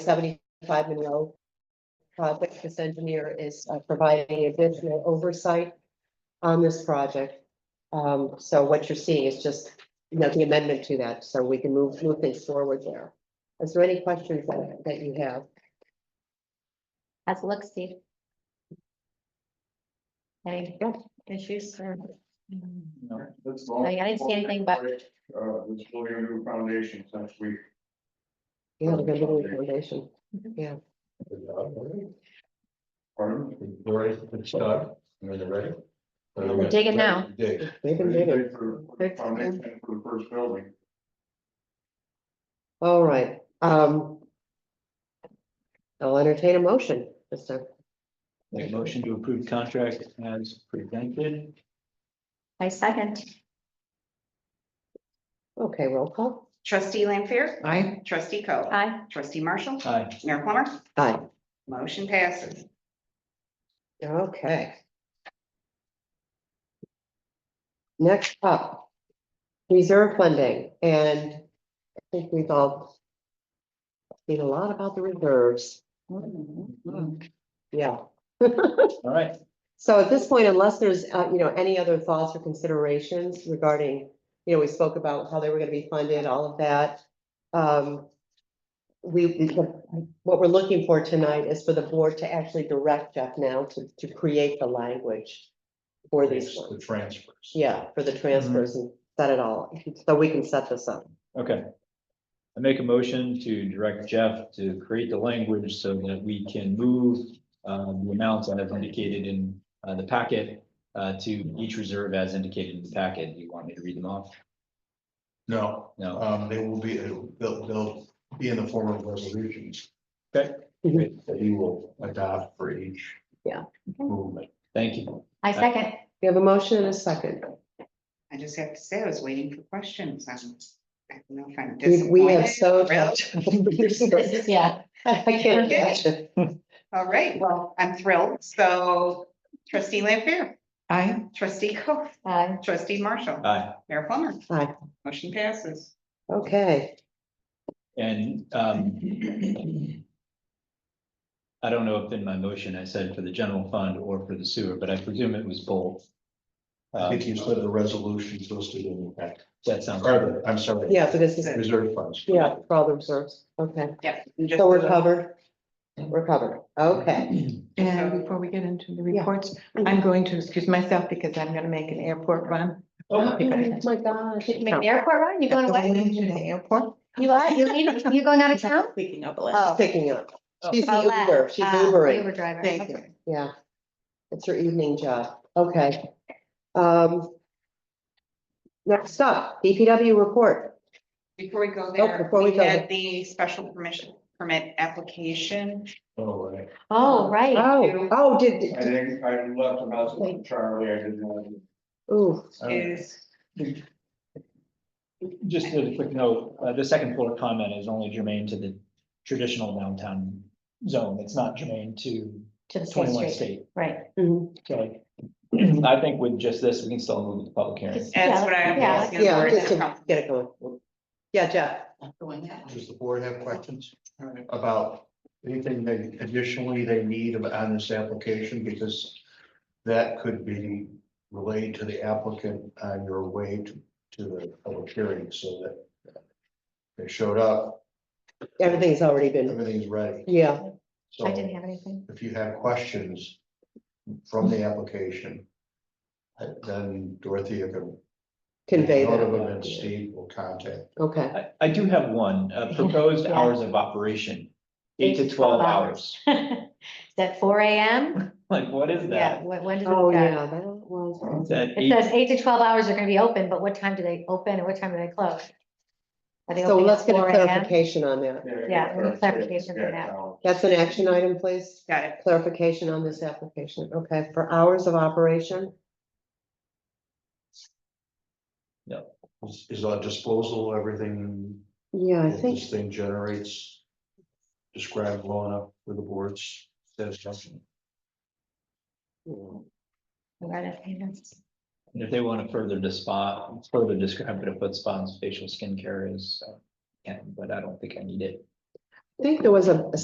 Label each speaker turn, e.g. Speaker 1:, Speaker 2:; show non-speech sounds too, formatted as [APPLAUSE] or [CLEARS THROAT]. Speaker 1: seventy-five Monroe. Project, this engineer is uh, providing additional oversight on this project. Um, so what you're seeing is just, you know, the amendment to that, so we can move, move things forward there. Is there any questions that, that you have?
Speaker 2: How's it look, Steve? Any issues or,
Speaker 3: No, that's
Speaker 2: I
Speaker 3: all.
Speaker 2: mean, I didn't see anything but,
Speaker 3: Uh, this building new foundation since we.
Speaker 1: You have a good little foundation.
Speaker 3: Pardon?
Speaker 4: Dory, it's stuck, and then they're ready.
Speaker 2: They're digging now.
Speaker 4: Dig.
Speaker 1: We've been
Speaker 3: We
Speaker 1: digging.
Speaker 3: did for- for the Foundation for the first building.
Speaker 1: All right, um. I'll entertain a motion, Mr.
Speaker 5: Make a motion to approve contract as presented.
Speaker 2: I second,
Speaker 1: Okay, roll call.
Speaker 6: Trustee Lampier,
Speaker 1: Aye.
Speaker 6: trustee Co.
Speaker 2: aye,
Speaker 6: Trustee Marshall,
Speaker 5: Aye.
Speaker 6: Mayor Plummer,
Speaker 1: Aye.
Speaker 6: motion passes.
Speaker 1: Okay. Next up. Reserve funding, and I think we've all. Seen a lot about the reserves, Hmm. yeah. [LAUGHS]
Speaker 5: All right,
Speaker 1: So at this point, unless there's, uh, you know, any other thoughts or considerations regarding, you know, we spoke about how they were gonna be funded, all of that. Um, we, we- what we're looking for tonight is for the board to actually direct Jeff now to, to create the language for these
Speaker 4: It's The
Speaker 1: ones.
Speaker 4: transfers.
Speaker 1: Yeah, for
Speaker 5: Mm-hmm.
Speaker 1: the transfers and set it all, so we can set this up.
Speaker 5: okay. I make a motion to direct Jeff to create the language so that we can move um, the amounts that I've indicated in uh, the packet uh, to each reserve as indicated in the packet. You want me to read them off?
Speaker 4: No,
Speaker 5: No,
Speaker 4: um, they will be, they'll, they'll be in the form of resolutions.
Speaker 5: Okay.
Speaker 4: That you will adopt for each.
Speaker 1: Yeah.
Speaker 4: Movement.
Speaker 5: thank you.
Speaker 2: I second,
Speaker 1: We have a motion and a second.
Speaker 6: I just have to say, I was waiting for questions. I'm- I don't know if I'm
Speaker 1: We, we have
Speaker 6: disappointed,
Speaker 1: so.
Speaker 6: thrilled.
Speaker 1: [LAUGHS]
Speaker 2: this [LAUGHS] is, yeah,
Speaker 1: I can't imagine.
Speaker 5: [LAUGHS]
Speaker 6: All right, well, I'm thrilled. So trustee Lampier. Aye. Trustee Co.
Speaker 2: aye,
Speaker 6: Trustee Marshall,
Speaker 5: Aye.
Speaker 6: Mayor Plummer.
Speaker 1: Aye.
Speaker 6: Motion passes.
Speaker 1: Okay,
Speaker 5: And um. I don't know if in my motion I said for the general fund or for the sewer, but I presume it was both.
Speaker 4: I
Speaker 5: Um,
Speaker 4: think you said the resolutions listed in the pack.
Speaker 5: That sounds,
Speaker 4: Or the- I'm sorry.
Speaker 1: yeah, so this is,
Speaker 4: Reserve funds.
Speaker 1: yeah, for all the reserves, okay.
Speaker 6: Yeah. and just
Speaker 1: So we're
Speaker 6: the-
Speaker 1: covered? We're covered, okay.
Speaker 6: So-
Speaker 7: And before we get into the
Speaker 1: Yeah.
Speaker 7: reports, I'm going to excuse myself because I'm gonna make an airport run.
Speaker 5: oh,
Speaker 1: my gosh.
Speaker 2: Did you make the airport run, you going
Speaker 7: Going
Speaker 2: away,
Speaker 7: into the airport.
Speaker 2: you
Speaker 1: [LAUGHS]
Speaker 2: are, you leaving, you going out of town?
Speaker 7: Speaking of,
Speaker 2: Oh.
Speaker 1: Picking up, she's
Speaker 2: Oh,
Speaker 1: the Uber, she's
Speaker 2: uh,
Speaker 1: Ubering,
Speaker 2: Uber driver.
Speaker 7: thank
Speaker 2: okay.
Speaker 7: you.
Speaker 1: yeah. It's her evening job, okay. Um. Next up, DPW report,
Speaker 6: Before we go
Speaker 1: Oh,
Speaker 6: there,
Speaker 1: before we
Speaker 6: we
Speaker 1: go
Speaker 6: had the special permission permit application.
Speaker 4: All right.
Speaker 2: Oh, right,
Speaker 1: oh, oh, did-
Speaker 3: I
Speaker 1: did,
Speaker 3: think I left about Charlie, I didn't know.
Speaker 1: ooh,
Speaker 5: Oh.
Speaker 6: Is
Speaker 5: just a quick note, uh, the second floor comment is only germane to the traditional downtown zone. It's not germane to
Speaker 2: to the state
Speaker 5: twenty-one
Speaker 2: street,
Speaker 5: state.
Speaker 2: right.
Speaker 1: mhm,
Speaker 5: So [CLEARS THROAT] I think with just this, we can still move the public hearing.
Speaker 2: Just-
Speaker 6: That's what I'm
Speaker 2: Yeah.
Speaker 6: asking.
Speaker 1: yeah,
Speaker 6: Where is
Speaker 1: just
Speaker 6: it from?
Speaker 1: to get it going. Yeah, Jeff,
Speaker 4: Does the board have questions about anything they additionally they need on this application? Because that could be relayed to the applicant on your way to, to the public hearing so that they showed up,
Speaker 1: everything's already been,
Speaker 4: everything's ready.
Speaker 1: yeah,
Speaker 4: So
Speaker 2: I didn't have anything. [LAUGHS]
Speaker 4: if you have questions from the application, uh, then Dorothea can.
Speaker 1: convey
Speaker 4: Note of them
Speaker 1: that,
Speaker 4: and Steve will contact.
Speaker 1: okay.
Speaker 5: I, I do have one, uh, proposed
Speaker 2: Yeah.
Speaker 5: hours of operation, eight to twelve hours.
Speaker 2: Is that four AM?
Speaker 5: Like, what is
Speaker 2: Yeah,
Speaker 5: that?
Speaker 2: what, when does it
Speaker 1: Oh,
Speaker 2: start?
Speaker 1: yeah, that was,
Speaker 5: Is that
Speaker 2: It
Speaker 5: eight-
Speaker 2: says eight to twelve hours are gonna be open, but what time do they open and what time do they close? Are they
Speaker 1: so
Speaker 2: opening at
Speaker 1: let's get a
Speaker 2: 4 a.m.?
Speaker 1: clarification on that.
Speaker 2: Yeah, we need clarification for that.
Speaker 1: That's an action item, please?
Speaker 6: Got it.
Speaker 1: clarification on this application, okay, for hours of operation,
Speaker 4: Is on disposal, everything
Speaker 1: yeah, I
Speaker 4: If
Speaker 1: think,
Speaker 4: This thing generates. Describe blowing up with the boards. satisfaction.
Speaker 2: Right, okay, that's-
Speaker 5: And if they want to further to spot, further uh, describe it, if what Spawn's facial skincare is, so, yeah, but I don't think I need it.
Speaker 1: think there was a a